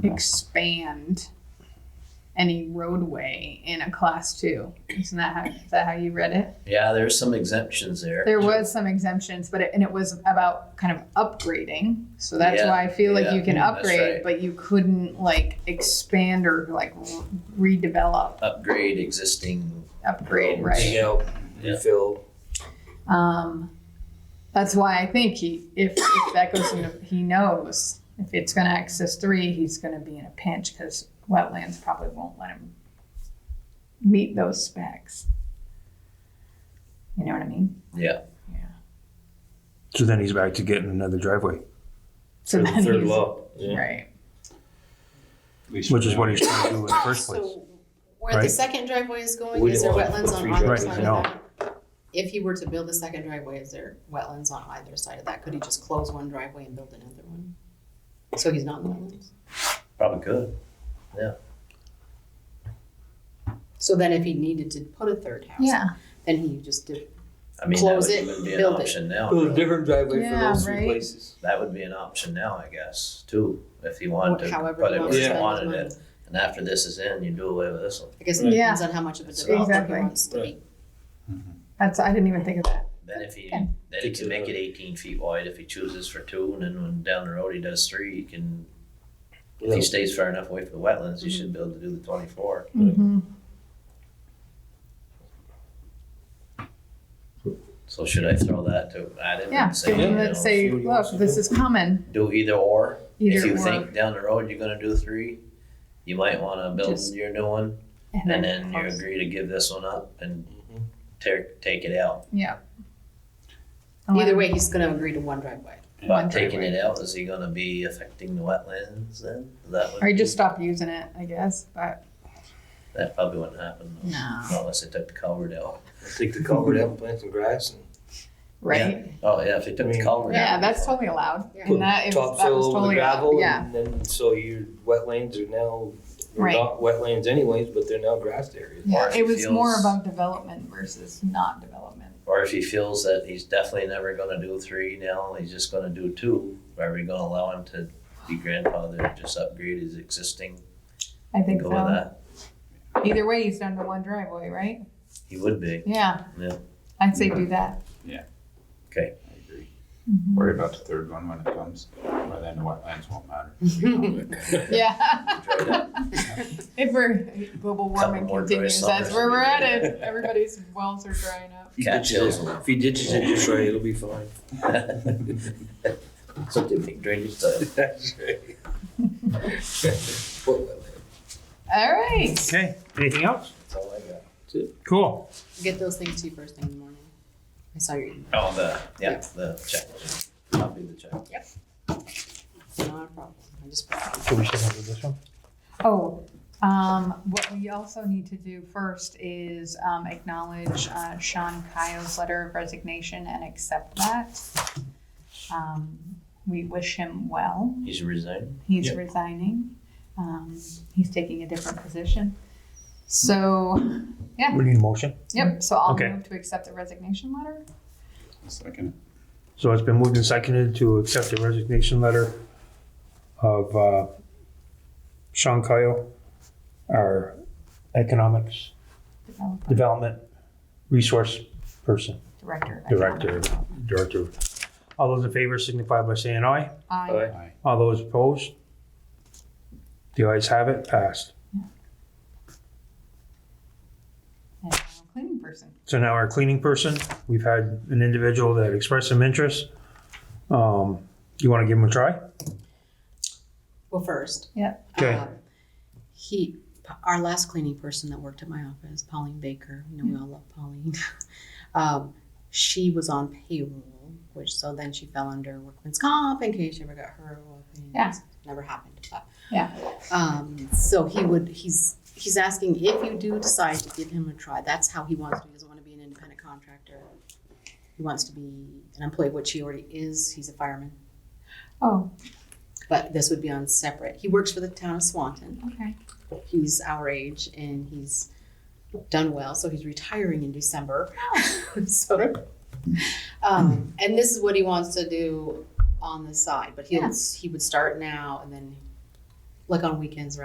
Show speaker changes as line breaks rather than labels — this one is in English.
expand any roadway in a class two. Isn't that how, is that how you read it?
Yeah, there's some exemptions there.
There was some exemptions, but it, and it was about kind of upgrading. So that's
Yeah,
why I feel like
yeah,
you can
that's
upgrade,
right.
but you couldn't like expand or like re- redevelop,
Upgrade existing.
upgrade,
Roads.
right?
You know,
Yeah.
refill.
Um, that's why I think he, if, if that goes into, he knows if it's going to access three, he's going to be in a pinch because wetlands probably won't let him meet those specs. You know what I mean?
Yeah.
So then he's back to getting another driveway,
So
for the
then
third
he's-
law. Yeah.
right.
which is what he's trying to do in the first place.
So where the
right?
second driveway is going,
We
is there
didn't want to
wetlands
put
on
three
either
driveways.
side
No.
of that? If he were to build a second driveway, is there wetlands on either side of that? Could he just close one driveway and build another one? So he's not in wetlands?
Probably could.
So then if he needed to put a third house,
Yeah.
then he just did,
I mean,
Close
that
it,
would even be an
build it.
option now.
Build a different driveway for
Yeah,
those three
right.
places.
That would be an option now, I guess, too, if he wanted to
however
put
he
it
wants
where
to
he
spend his
wanted
money.
it. And after this is in, you do away with this one.
I guess it
Right.
depends on how much of a
That's
developer he
exactly.
wants to
Right.
be.
That's, I didn't even think of that.
Then if he,
Okay.
then he can make it eighteen feet wide if he chooses for two, and then when down the road he does three, he can, if he stays far enough away from the wetlands, he
Mm-hmm.
should be able to do the twenty-four.
Mm-hmm.
So should I throw that to add in
Yeah.
and say,
Give
you
him
know,
that say,
see what he
look,
wants to
this
do."
is coming.
do either or? If
Either
you
or.
think down the road you're gonna do three, you might wanna build
Just-
your new one, and then you agree to give this one up and
Mhm.
tear, take it out.
Yeah.
Either way, he's gonna agree to one driveway.
One
But taking it out, is he gonna be affecting the wetlands then? That would.
Or you
be-
just stop using it, I guess. But
That probably wouldn't happen. though.
No.
Not Unless they took the culvert out.
Take the culvert out and plant some grass and
right.
Oh, yeah, if they took the culvert out.
Yeah, that's totally allowed.
Yeah.
And that
put
is, that was
topsoil over the
totally allowed,
gravel.
yeah.
And then, so your wetlands are now, they're
Right.
not wetlands anyways, but they're now grassed areas.
Or
Yeah,
if
it
it
was more
feels-
about development versus not development.
Or if he feels that he's definitely never gonna do three now, he's just gonna do two, are we gonna allow him to be grandfathered, just upgrade his existing?
I think
Go with
so.
that,
Either way, he's done the one driveway, right?
he would be,
Yeah.
Yeah.
I'd say do that.
I agree.
Mhm.
Mm-hmm.
Worry about the third one when it comes, by then the wetlands won't matter.
Yeah. If we're, global warming
Couple more dry
continues, that's
summers.
where we're at it. Everybody's wells are drying up.
If you
Cat
ditch it-
hills.
If he ditches it just right, it'll be fine.
so they think drainage stuff.
That's right. What wetland?
All right.
Okay, anything else?
That's all I got.
Cool.
Get those things to you first thing in the morning. I saw your email,
Oh, the, yeah, the check, copy the check.
not a problem, I just.
So we should handle this one?
Oh, um, what we also need to do first is, um, acknowledge, uh, Sean Kyo's letter of resignation and accept that. Um, we wish him well.
He's resigned?
He's
Yeah.
resigning. Um, he's taking a different position. So,
We need a motion.
yep, so I'll
Okay.
move to accept the resignation letter.
Second.
So it's been moved and seconded to accept the resignation letter of uh, Sean Kyle, our economics
Developer,
development resource person,
Director.
director, director. All those in favor signify by saying aye.
Aye.
Aye.
All those opposed? The ayes have it, passed.
And now cleaning person.
So now our cleaning person, we've had an individual that expressed some interest. Um, You want to give him a try?
Well, first.
Yeah.
Okay.
um, He, our last cleaning person that worked at my office, Pauline Baker, you know, we all love Pauline. Um, she was on payroll, which, so then she fell under workman's comp in case she ever got hurt or anything.
Yeah.
Never happened, but.
Yeah.
Um, so he would, he's, he's asking if you do decide to give him a try, that's how he wants to, he doesn't want to be an independent contractor. He wants to be an employee, which he already is, he's a fireman,
Oh,
but this would be on separate. He works for the town of Swanton
okay.
he's our age and he's done well, so he's retiring in December. so, um, and this is what he wants to do on the side, but he'll he would start now and then like on weekends, right?